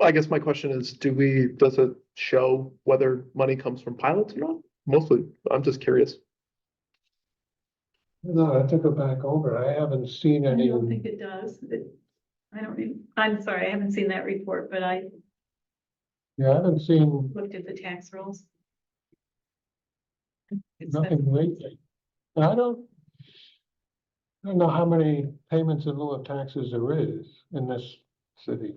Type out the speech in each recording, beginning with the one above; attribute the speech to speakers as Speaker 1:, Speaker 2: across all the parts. Speaker 1: I guess my question is, do we, does it show whether money comes from pilots or not? Mostly, I'm just curious.
Speaker 2: No, I have to go back over. I haven't seen
Speaker 3: I
Speaker 2: any.
Speaker 3: don't think it does. It- I don't, even- I'm sorry, I haven't seen that report, but I
Speaker 2: Yeah, I haven't seen
Speaker 3: looked at the tax rolls. It's been-
Speaker 2: nothing lately. And I don't. I don't know how many payments in lieu of taxes there is in this city.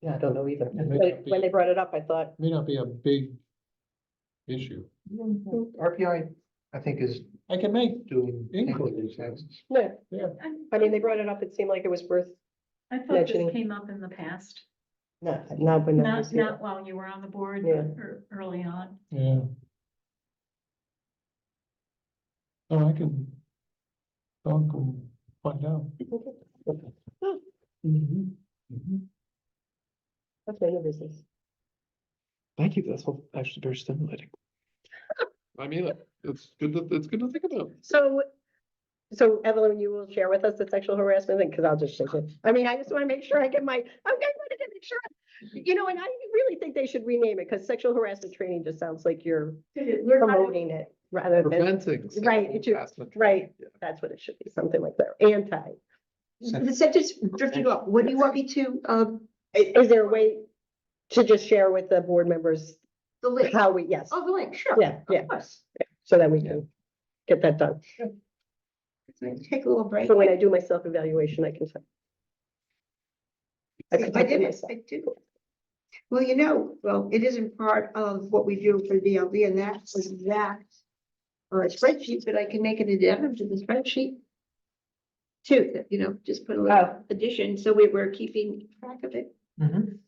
Speaker 4: Yeah, I don't know either.
Speaker 2: It may
Speaker 4: But
Speaker 2: not
Speaker 4: When they
Speaker 2: be-
Speaker 4: brought it up, I thought,
Speaker 2: may not be a big issue.
Speaker 4: hmm. Mm-hmm.
Speaker 5: RPI, I think, is
Speaker 2: I can make
Speaker 5: doing.
Speaker 2: inquiries.
Speaker 4: no, I
Speaker 3: I
Speaker 4: mean, they brought it up, it seemed like it was worth,
Speaker 3: I thought
Speaker 4: mentioning-
Speaker 3: this came up in the past,
Speaker 4: not, not when. I was
Speaker 3: not,
Speaker 4: here.
Speaker 3: not while you were on the board,
Speaker 4: Yeah.
Speaker 3: but ear- early on.
Speaker 2: Yeah. Oh, I can. I can find out. Mm-hmm.
Speaker 4: That's my new business.
Speaker 1: Thank you, that's all actually very stimulating. I mean, it's good to, it's good to think about.
Speaker 4: So, so Evelyn, you will share with us the sexual harassment thing, because I'll just, shake it. I mean, I just want to make sure I get my, okay, I want to make sure. You know, and I really think they should rename it, because sexual harassment training just sounds like you're
Speaker 3: We're not-
Speaker 4: promoting it rather than,
Speaker 1: Preventing. sexual
Speaker 4: Right, it should-
Speaker 1: harassment.
Speaker 4: right.
Speaker 1: Yeah.
Speaker 4: that's what it should be, something like that, anti.
Speaker 6: The sentence drifted off. What do you want me to, um,
Speaker 4: I- Is there a way to just share with the board members
Speaker 6: the link?
Speaker 4: how we, yes,
Speaker 6: Oh, the link, sure.
Speaker 4: yeah, yeah,
Speaker 6: Of course.
Speaker 4: so that we can get that done.
Speaker 6: Take a little break.
Speaker 4: So when I do my self-evaluation, I can. say- I can
Speaker 6: I
Speaker 4: talk to
Speaker 6: did,
Speaker 4: myself.
Speaker 6: I do. Well, you know, well, it isn't part of what we do for DLB and that was that. Or a spreadsheet, but I can make an addendum to the spreadsheet. Too, that, you know, just put a little addition, so we were keeping track of it.
Speaker 5: Mhm.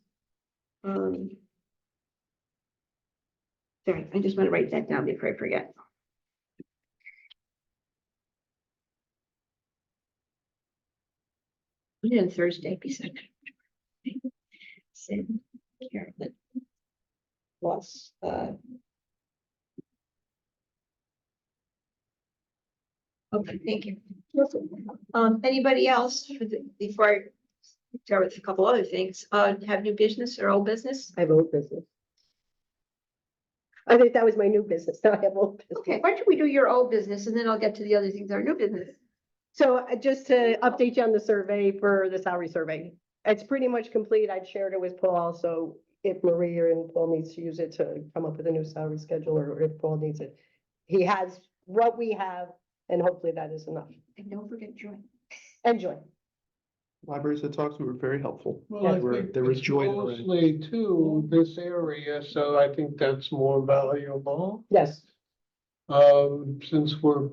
Speaker 6: Um. Sorry, I just want to write that down before I forget. Yeah, and Thursday, be second. Sid, Carolyn. Plus, uh. Okay, thank you. Um, anybody else for the- before I start with a couple other things, uh, have new business or old business?
Speaker 4: I have old business. I think that was my new business, now I have old
Speaker 6: Okay,
Speaker 4: business.
Speaker 6: why don't we do your old business and then I'll get to the other things, our new business.
Speaker 4: So uh, just to update you on the survey for the salary survey, it's pretty much complete, I'd shared it with Paul, so if Marie or and Paul needs to use it to come up with a new salary schedule, or if Paul needs it, he has what we have, and hopefully that is enough.
Speaker 6: And don't forget join.
Speaker 4: Enjoy.
Speaker 1: Libraries that talked to were very helpful.
Speaker 2: Well, I
Speaker 1: There were-
Speaker 2: think
Speaker 1: there was
Speaker 2: it's
Speaker 1: joy in the room.
Speaker 2: Mostly to this area, so I think that's more valuable.
Speaker 4: Yes,
Speaker 2: Um, since we're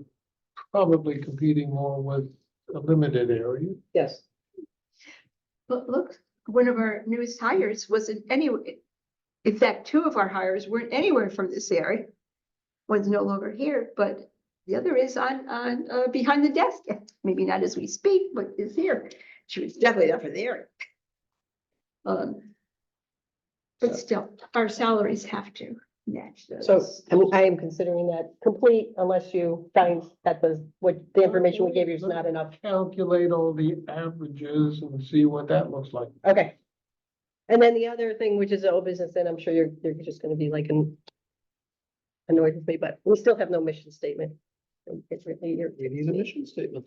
Speaker 2: probably competing more with a limited area.
Speaker 4: yes.
Speaker 6: But look, one of our newest hires wasn't anywhere. In fact, two of our hires weren't anywhere from this area. One's no longer here, but the other is on, on, uh, behind the desk. Maybe not as we speak, but is here. She was definitely not from there. Um. But still, our salaries have to match those.
Speaker 4: So I'm- I am considering that complete unless you find that the, what, the information we gave you is not enough.
Speaker 2: Calculate all the averages and see what that looks like.
Speaker 4: Okay. And then the other thing, which is the old business, and I'm sure you're, you're just gonna be like an- annoyed with me, but we still have no mission statement. It's really, you're-
Speaker 1: It is a mission statement.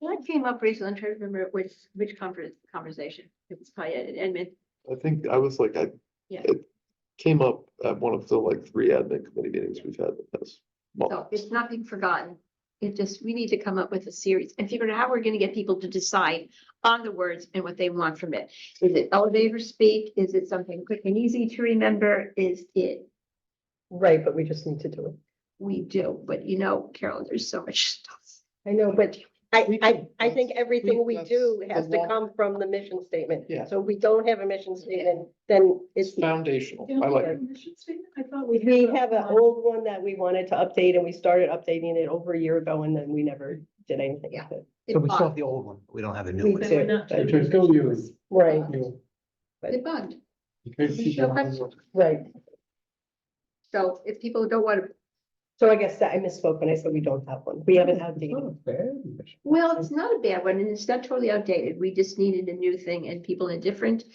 Speaker 6: What came up recently? I'm trying to remember which, which conference, conversation. It was probably at Edmund.
Speaker 1: I think I was like, I.
Speaker 6: Yeah.
Speaker 1: it Came up at one of the like three admin committee meetings we've had with this.
Speaker 6: So it's not being forgotten. It just, we need to come up with a series and figure out how we're gonna get people to decide on the words and what they want from it. Is it elevator speak? Is it something quick and easy to remember? Is it,
Speaker 4: right, but we just need to do it.
Speaker 6: we do, but you know, Carol, there's so much stuff.
Speaker 4: I know, but I,
Speaker 1: We
Speaker 4: I,
Speaker 1: can-
Speaker 4: I think everything we
Speaker 1: that's
Speaker 4: do
Speaker 1: the
Speaker 4: has to
Speaker 1: law.
Speaker 4: come from the mission statement.
Speaker 1: Yeah.
Speaker 4: So we don't have a mission statement, then it's.
Speaker 1: Foundational.
Speaker 3: Don't
Speaker 1: I
Speaker 3: we
Speaker 1: like
Speaker 3: have
Speaker 1: it.
Speaker 3: a mission statement? I thought we.
Speaker 4: We
Speaker 3: had
Speaker 4: have an
Speaker 3: one.
Speaker 4: old one that we wanted to update and we started updating it over a year ago and then we never did anything with it.
Speaker 6: It
Speaker 5: So we still have
Speaker 6: bugged,
Speaker 5: the old one. We don't have a new
Speaker 4: We
Speaker 5: one.
Speaker 3: But
Speaker 4: do.
Speaker 3: we're not
Speaker 4: Which
Speaker 2: is still you.
Speaker 4: Right,
Speaker 2: You
Speaker 6: it bugged.
Speaker 2: know, in case you don't know.
Speaker 4: right.
Speaker 6: So if people don't wanna,
Speaker 4: So I guess that I misspoke when I said we don't have one. We haven't outdated.
Speaker 2: Not
Speaker 1: Oh,
Speaker 2: a bad mission.
Speaker 6: well, it's not a bad one and it's not totally outdated. We just needed a new thing and people are different.